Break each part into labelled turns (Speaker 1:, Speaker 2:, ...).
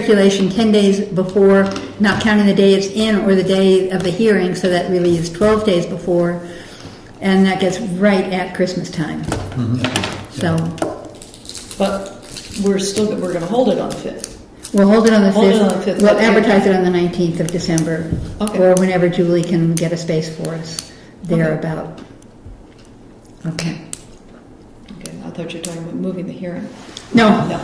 Speaker 1: circulation 10 days before, not counting the day it's in or the day of the hearing, so that really is 12 days before, and that gets right at Christmas time. So
Speaker 2: But we're still, we're gonna hold it on the fifth.
Speaker 1: we'll hold it on the
Speaker 2: Hold it on the
Speaker 1: 5th.
Speaker 2: 5th,
Speaker 1: We'll
Speaker 2: okay.
Speaker 1: advertise it on the 19th of December,
Speaker 2: Okay.
Speaker 1: or whenever Julie can get a space for us thereabout. Okay.
Speaker 2: Okay, I thought you were talking about moving the hearing.
Speaker 1: No,
Speaker 2: No,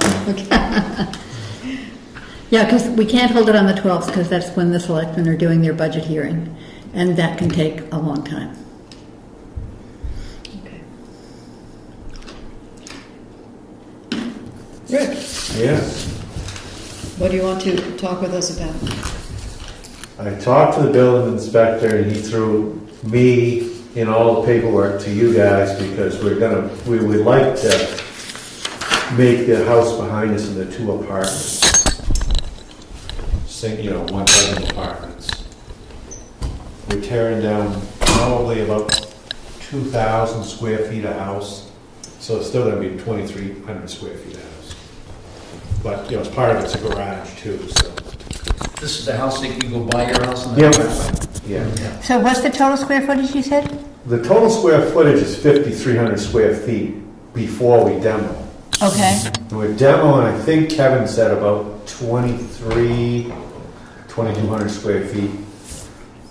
Speaker 1: yeah, because we can't hold it on the 12th, because that's when the selectmen are doing their budget hearing, and that can take a long time.
Speaker 2: okay. Rick,
Speaker 3: Yeah,
Speaker 2: what do you want to talk with us about?
Speaker 3: I talked to the building inspector and he threw me and all the paperwork to you guys because we're gonna, we would like to make the house behind us into two apartments. Sing, you know, one bedroom apartments. We're tearing down probably about two thousand square feet of house, so it's still gonna be twenty-three hundred square feet of house. But, you know, it's part of it's a garage too, so.
Speaker 4: This is the house that you go buy your house and
Speaker 3: Yeah.
Speaker 4: then drive
Speaker 3: Yeah.
Speaker 1: So what's the total square footage you said?
Speaker 3: The total square footage is 5,300 square feet before we demo.
Speaker 1: Okay.
Speaker 3: And we're demoing, I think Kevin said about 23, 2,200 square feet.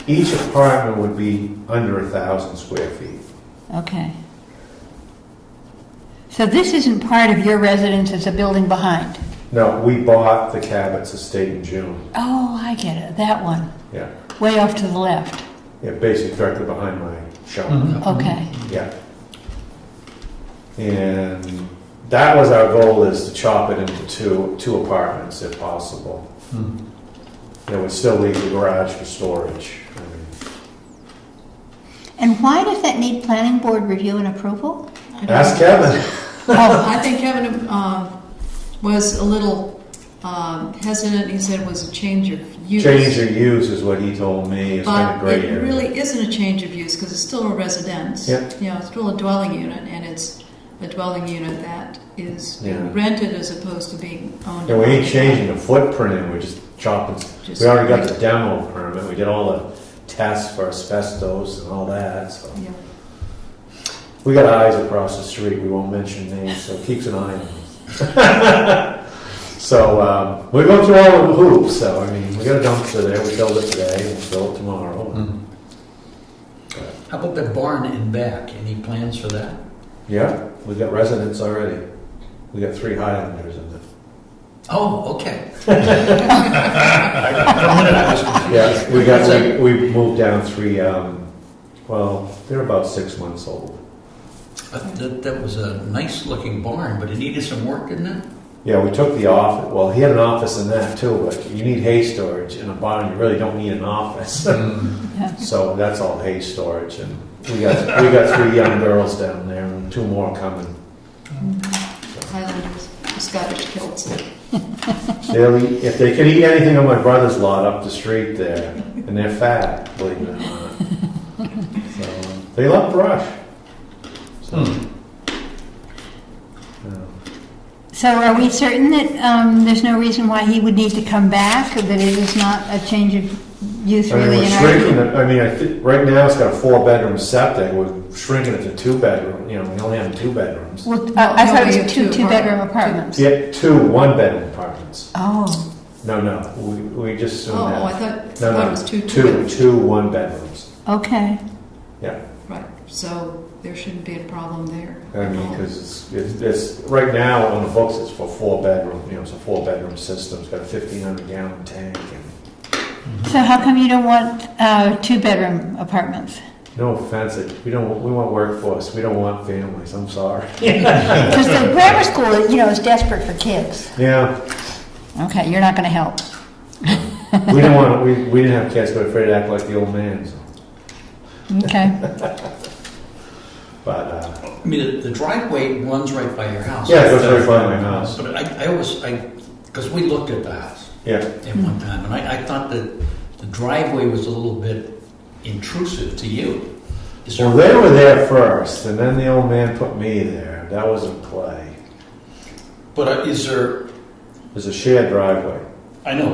Speaker 3: Each apartment would be under a 1,000 square feet.
Speaker 1: Okay. So this isn't part of your residence, it's a building behind?
Speaker 3: No, we bought the Cabot's estate in June.
Speaker 1: Oh, I get it, that one,
Speaker 3: Yeah,
Speaker 1: way off to the left.
Speaker 3: yeah, basically directly behind my shop.
Speaker 4: by.
Speaker 1: Okay,
Speaker 3: Yeah. And that was our goal, is to chop it into two, two apartments if possible. It would still leave the garage for storage. I mean,
Speaker 1: and why does that need planning board review and approval?
Speaker 3: Ask Kevin.
Speaker 5: Oh,
Speaker 2: I think Kevin um, was a little um, hesitant, he said it was a change of use.
Speaker 3: Change your use is what he told me, it's been a
Speaker 2: But
Speaker 3: great
Speaker 2: it
Speaker 3: area.
Speaker 2: really isn't a change of use, because it's still a residence.
Speaker 3: Yeah.
Speaker 2: You know, it's still a dwelling unit, and it's a dwelling unit that is
Speaker 3: Yeah.
Speaker 2: rented as opposed to being owned.
Speaker 3: And we ain't changing the footprint, we're just chopping,
Speaker 2: Just-
Speaker 3: we already got the demo permit, we did all the tests for asbestos and all that, so.
Speaker 2: Yeah.
Speaker 3: We got eyes across the street, we won't mention names, so keeps an eye on us. So, um, we're going through all the hoops, so, I mean, we got a dumpster there, we filled it today, we'll fill it tomorrow.
Speaker 4: Mm-hmm. How about the barn in back? Any plans for that?
Speaker 3: Yeah, we got residents already. We got three Highlanders in there.
Speaker 4: Oh, okay.
Speaker 3: Yeah, we got, we, we moved down three, um, well, they're about six months old.
Speaker 4: But That, that was a nice looking barn, but it needed some work, didn't it?
Speaker 3: Yeah, we took the office, well, he had an office in that too, but you need hay storage in a barn, you really don't need an office. So that's all hay storage, and we got, we got three young girls down there, and two more coming.
Speaker 2: mm-hmm. Highlanders, Scottish kilts.
Speaker 3: They'll eat, if they could eat anything on my brother's lot up the street there, and they're fat, believe it or not. So, They love brush. So, yeah.
Speaker 5: So are we certain that um, there's no reason why he would need to come back, or that it is not a change of use
Speaker 3: I mean,
Speaker 5: really
Speaker 3: we're
Speaker 5: in our...
Speaker 3: shrinking it, I mean, I think, right now it's got a four-bedroom septic, we're shrinking it to two-bedroom, you know, we only have two bedrooms.
Speaker 5: Well, I I
Speaker 2: No,
Speaker 5: thought
Speaker 2: we
Speaker 5: it
Speaker 2: have
Speaker 5: was two
Speaker 2: two
Speaker 5: two-bedroom
Speaker 2: apart-
Speaker 5: apartments.
Speaker 3: Yeah, two one-bedroom apartments.
Speaker 5: Oh,
Speaker 3: No, no, we, we just
Speaker 2: Oh,
Speaker 3: assumed
Speaker 2: oh, I
Speaker 3: that.
Speaker 2: thought, I
Speaker 3: No,
Speaker 2: thought
Speaker 3: no,
Speaker 2: it was two,
Speaker 3: Two,
Speaker 2: two.
Speaker 3: two one-bedrooms,
Speaker 5: okay.
Speaker 3: yeah.
Speaker 2: Right, so there shouldn't be a problem there.
Speaker 3: I mean, because it's, it's, right now on the books, it's for four-bedroom, you know, it's a four-bedroom system, it's got a fifteen hundred gallon tank and,
Speaker 5: So how come you don't want uh, two-bedroom apartments?
Speaker 3: no offense, it- we don't, we want workforce, we don't want families, I'm sorry.
Speaker 5: Because the grammar school, you know, is desperate for kids.
Speaker 3: Yeah,
Speaker 5: Okay, you're not going to help.
Speaker 3: we didn't want, we, we didn't have kids, but afraid to act like the old man, so.
Speaker 5: Okay.
Speaker 3: But uh,
Speaker 4: I mean, the, the driveway runs right by your house.
Speaker 3: yeah, it goes right by my house.
Speaker 4: But I, I always, I, because we looked at the house
Speaker 3: Yeah,
Speaker 4: at one time, and I, I thought that the driveway was a little bit intrusive to you. Is there-
Speaker 3: well, they were there first, and then the old man put me there. That was a play.
Speaker 4: But uh, is there,
Speaker 3: There's a shared driveway.
Speaker 4: I know,